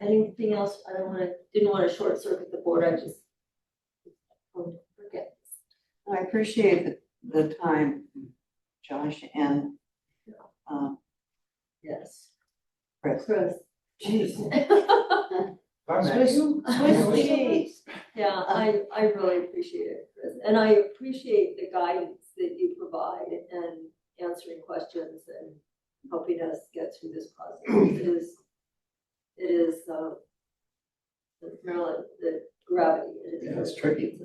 Anything else, I don't wanna, didn't wanna short circuit the board, I just. Oh, Forget. I appreciate the, the time, Josh and, um, Yes. Chris. Chris. Jeez. Swiss- Swiss cheese. Yeah, I, I really appreciate it, Chris, and I appreciate the guidance that you provide and answering questions and helping us get through this process. It is, it is, uh, the thrill, the gravity. it is- Yeah, it's tricky.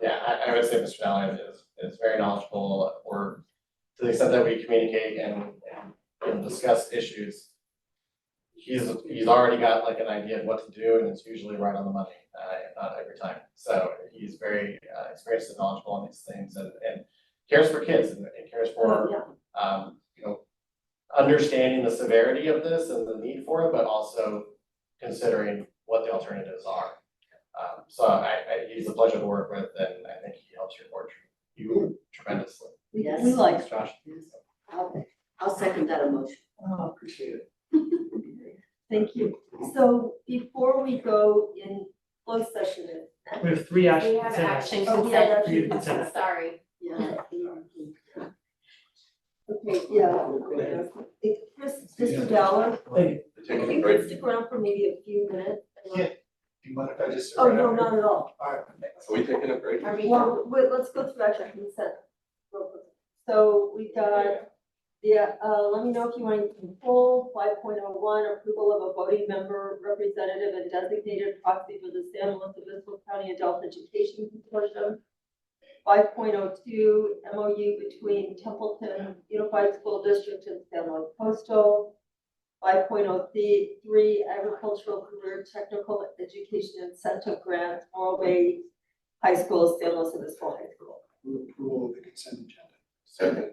Yeah, I, I would say Mr. Allen is, is very knowledgeable, or to the extent that we communicate and, and discuss issues. He's, he's already got like an idea of what to do, and it's usually right on the money, uh, if not every time. So he's very, uh, experienced and knowledgeable on these things, and, and cares for kids, and and cares for, Yeah, um, you know, understanding the severity of this and the need for it, but also considering what the alternatives are. Um, so I, I, he's a pleasure to work with and I think he helps your board tr- you tremendously. we, Yes. we like, Thanks, Josh. I'll, I'll second that emotion. Oh, appreciate it. thank you. So before we go in closed session, We have three actions. We have action Oh, we have consent, We have consent. sorry. Yeah. Okay, yeah. It- Chris, Mr. Dowler, Thank if you could stick around for maybe a few minutes. Yeah. Do you mind if I just? Oh, no, not at all. Are we taking a break? Are we- Well, wait, let's go through action consent. So we got, yeah, uh, let me know if you want to pull five point oh one, approval of a voting member, representative, and designated proxy for the San Luis Obispo County Adult Education Consortium. Five point oh two, MOU between Templeton Unified School District and San Luis Coastal. Five point oh three, agricultural career technical education incentive grant, Morro Bay High School, San Luis Obispo High School. Approval of the consent agenda.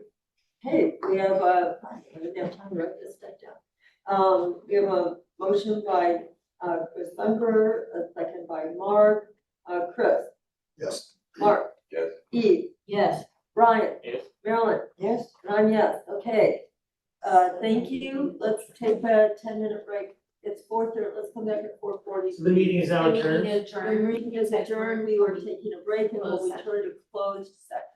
Hey, we have a, I didn't have time to write this stuff down. Um, we have a motion by, uh, Chris Bumper, a second by Mark, uh, Chris, Yes. Mark. Yes. Eve, Yes. Brian. Yes. Marilyn, Yes? and I'm yes, okay. Uh, thank you, let's take a ten minute break, it's four thirty, let's come back at four forty. So the meeting is now And we need adjourned. to Our adjourn. meeting is adjourned, we were taking a break and we'll Closed session. return to closed session.